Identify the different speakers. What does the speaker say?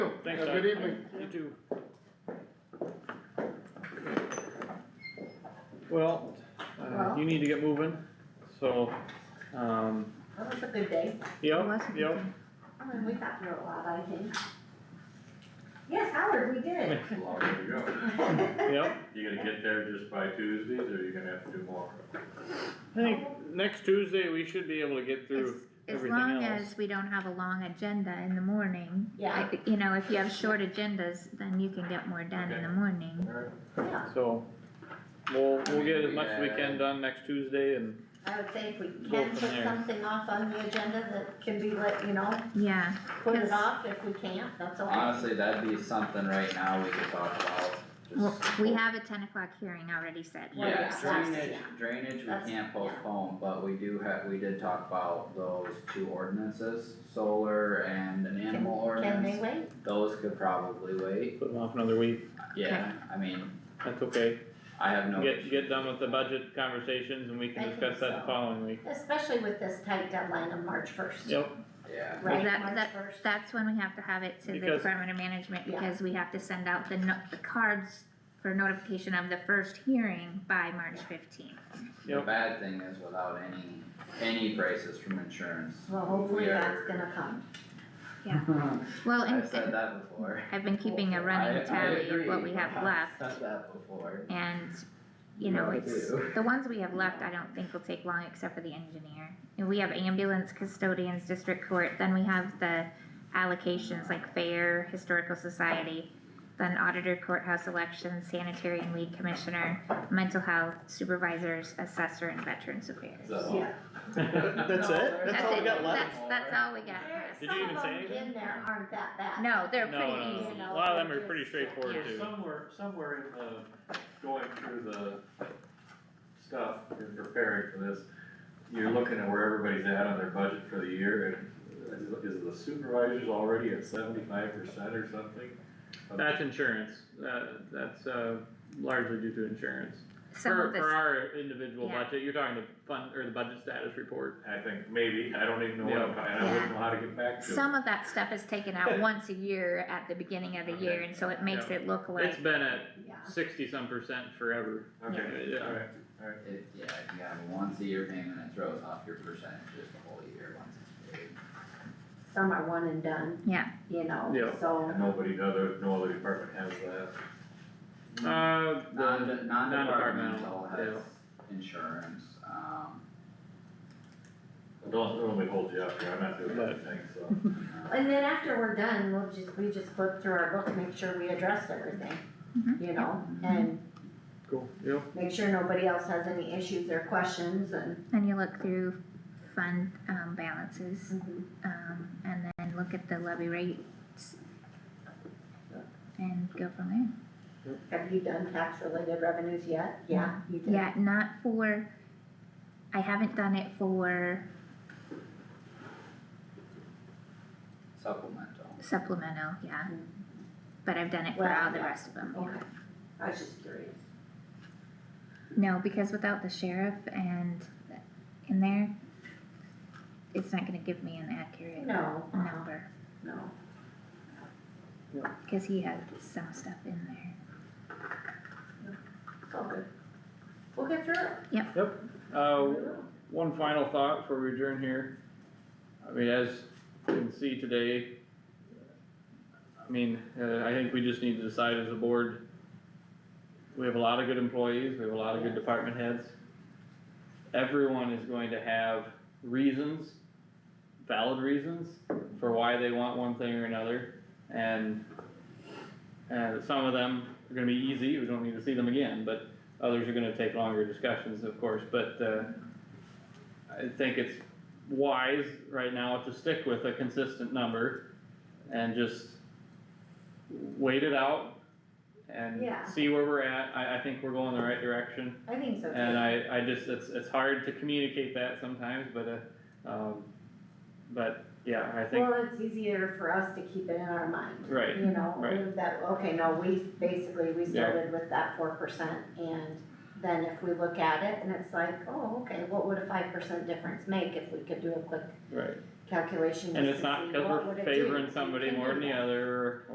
Speaker 1: Thanks,
Speaker 2: Have a
Speaker 1: Doug.
Speaker 2: good evening.
Speaker 1: You too.
Speaker 2: Well, uh, you need to get moving, so, um,
Speaker 3: That was a good day.
Speaker 2: yep, yep.
Speaker 3: I mean, we got through a lot, I think. Yes, Howard, we did.
Speaker 4: Long way to go.
Speaker 2: Yep,
Speaker 4: You gonna get there just by Tuesdays, or you gonna have to do more?
Speaker 2: I think next Tuesday we should be able to get
Speaker 5: As,
Speaker 2: through
Speaker 5: as
Speaker 2: everything
Speaker 5: long
Speaker 2: else.
Speaker 5: as we don't have a long agenda in the morning.
Speaker 3: Yeah.
Speaker 5: I- You know, if you have short agendas, then you can get more done in the morning.
Speaker 4: Alright.
Speaker 3: Yeah,
Speaker 2: So, we'll, we'll get as much as we can
Speaker 4: Yeah.
Speaker 2: done next Tuesday and,
Speaker 3: I would say if we
Speaker 2: Go from
Speaker 3: can put
Speaker 2: there.
Speaker 3: something off on the agenda that can be let, you know,
Speaker 5: Yeah,
Speaker 3: put it
Speaker 5: Yes.
Speaker 3: off if we can't, that's all.
Speaker 6: Honestly, that'd be something right now we could talk about,
Speaker 5: well,
Speaker 6: just.
Speaker 5: we have a ten o'clock hearing already set.
Speaker 3: Well,
Speaker 6: Yeah,
Speaker 3: yeah,
Speaker 6: drainage,
Speaker 3: yeah.
Speaker 6: drainage,
Speaker 3: That's-
Speaker 6: we can't
Speaker 3: yeah.
Speaker 6: postpone, but we do have, we did talk about those two ordinances, solar and an animal
Speaker 3: Can they
Speaker 6: ordinance.
Speaker 3: wait?
Speaker 6: Those could probably wait,
Speaker 2: put them off another week,
Speaker 6: yeah, I mean,
Speaker 2: that's okay.
Speaker 6: I have no.
Speaker 2: Get, get done with the budget conversations and we
Speaker 3: I
Speaker 2: can
Speaker 3: think
Speaker 2: discuss that the
Speaker 3: so.
Speaker 2: following week.
Speaker 3: Especially with this tight deadline of March first.
Speaker 2: Yep,
Speaker 6: Yeah,
Speaker 3: Right,
Speaker 5: That-
Speaker 3: March
Speaker 5: that-
Speaker 3: first.
Speaker 5: That's when we have to have it to the
Speaker 2: Because-
Speaker 5: Department of Management,
Speaker 3: Yeah.
Speaker 5: because we have to send out the no, the cards for notification of the first hearing by March fifteenth.
Speaker 6: the
Speaker 2: Yep.
Speaker 6: bad thing is without any, any prices from insurance.
Speaker 3: Well, hopefully
Speaker 6: we are-
Speaker 3: that's gonna come.
Speaker 5: Well,
Speaker 6: I've
Speaker 5: and
Speaker 6: said that before.
Speaker 5: I've been keeping a running tally of what we have left.
Speaker 6: I, I agree, I've said that before.
Speaker 5: And, you know,
Speaker 6: Me
Speaker 5: it's,
Speaker 6: too.
Speaker 5: the ones we have left, I don't think will take long except for the engineer. And we have ambulance custodians, district court, then we have the allocations like fair, historical society, then auditor, courthouse elections, sanitary and lead commissioner, mental health supervisors, assessor and veterans affairs.
Speaker 6: So-
Speaker 3: Yeah.
Speaker 1: That's it? That's all we got left?
Speaker 5: That's, that's all we got.
Speaker 2: Did you even say
Speaker 3: Some of them
Speaker 2: anything?
Speaker 3: in there aren't that bad.
Speaker 5: No, they're
Speaker 2: no,
Speaker 5: pretty
Speaker 2: no,
Speaker 5: easy.
Speaker 2: no. a lot of them are pretty straightforward
Speaker 4: Well,
Speaker 2: too.
Speaker 4: Somewhere, somewhere in the, going through the stuff and preparing for this, you're looking at where everybody's at on their budget for the year, and is, is the supervisors already at seventy-five percent or something?
Speaker 2: That's insurance, that, that's, uh, largely due to insurance.
Speaker 5: Some
Speaker 2: For,
Speaker 5: of
Speaker 2: for
Speaker 5: this,
Speaker 2: our individual
Speaker 5: Yeah.
Speaker 2: budget, you're talking the fund, or the budget status report.
Speaker 4: I think maybe, I don't even know what, I'm- and I wouldn't know how to get back to it.
Speaker 5: some of that stuff is taken out once a year at the beginning of the year, and so it makes
Speaker 2: Yeah.
Speaker 5: it look like
Speaker 2: It's been at
Speaker 3: Yeah.
Speaker 2: sixty some percent forever.
Speaker 4: Okay,
Speaker 2: Yeah.
Speaker 4: alright.
Speaker 6: It, yeah, if you have a once a year payment, it throws off your percentages the whole year once it's paid.
Speaker 3: Some are one and done.
Speaker 5: Yeah.
Speaker 3: You know,
Speaker 2: Yeah.
Speaker 3: so,
Speaker 4: And nobody, no other, no other department has that.
Speaker 2: Uh,
Speaker 5: Mm-hmm.
Speaker 6: Non,
Speaker 2: the,
Speaker 6: non-departmental has
Speaker 2: non-departmental,
Speaker 6: insurance, um,
Speaker 4: Don't, don't let me hold you up here, I'm not doing anything, so.
Speaker 6: uh,
Speaker 3: and then after we're done, we'll just, we just flip through our book, and make sure we addressed everything.
Speaker 5: Mhm.
Speaker 3: You know,
Speaker 6: Mhm.
Speaker 3: and
Speaker 2: cool, yep,
Speaker 3: make sure nobody else has any issues or questions and.
Speaker 5: And you look through fund, um, balances, um, and then look at the levy rates. And go from
Speaker 3: Have you done tax related revenues yet? Yeah, you
Speaker 5: there.
Speaker 3: did.
Speaker 5: Yeah, not for, I haven't done it for
Speaker 6: supplemental.
Speaker 5: supplemental, yeah. But I've done it for
Speaker 3: Well,
Speaker 5: all the
Speaker 3: yeah.
Speaker 5: rest of them, yeah.
Speaker 3: Okay, I was just curious.
Speaker 5: No, because without the sheriff and in there, it's not gonna give me an accurate
Speaker 3: No,
Speaker 5: number,
Speaker 3: no.
Speaker 5: cause he had some stuff in there.
Speaker 3: It's all good. We'll get through it.
Speaker 2: uh,
Speaker 3: We will.
Speaker 2: One final thought before we adjourn here. I mean, as you can see today, I mean, uh, I think we just need to decide as a board. We have a lot of good employees, we have a lot of good department heads. Everyone is going to have reasons, valid reasons, for why they want one thing or another. And, and some of them are gonna be easy, we don't need to see them again, but others are gonna take longer discussions, of course, but, uh, I think it's wise right now to stick with a consistent number and just wait it out and
Speaker 3: Yeah.
Speaker 2: see where we're at. I, I think we're going the right direction.
Speaker 3: I think so too.
Speaker 2: And I, I just, it's, it's hard to communicate that sometimes, but, uh, um, but, yeah, I think,
Speaker 3: Well, it's easier for us to keep it in our mind.
Speaker 2: right,
Speaker 3: You know,
Speaker 2: right.
Speaker 3: that, okay, no, we, basically, we
Speaker 2: Yeah.
Speaker 3: started with that four percent, and then if we look at it, and it's like, oh, okay, what would a five percent difference make if we could do a quick
Speaker 2: right.
Speaker 3: calculation?
Speaker 2: And
Speaker 3: just
Speaker 2: it's
Speaker 3: to
Speaker 2: not
Speaker 3: see
Speaker 2: because
Speaker 3: what would
Speaker 2: we're
Speaker 3: it do?
Speaker 2: favoring
Speaker 3: You
Speaker 2: somebody
Speaker 3: can
Speaker 2: more
Speaker 3: do
Speaker 2: than the
Speaker 3: that.
Speaker 2: other, or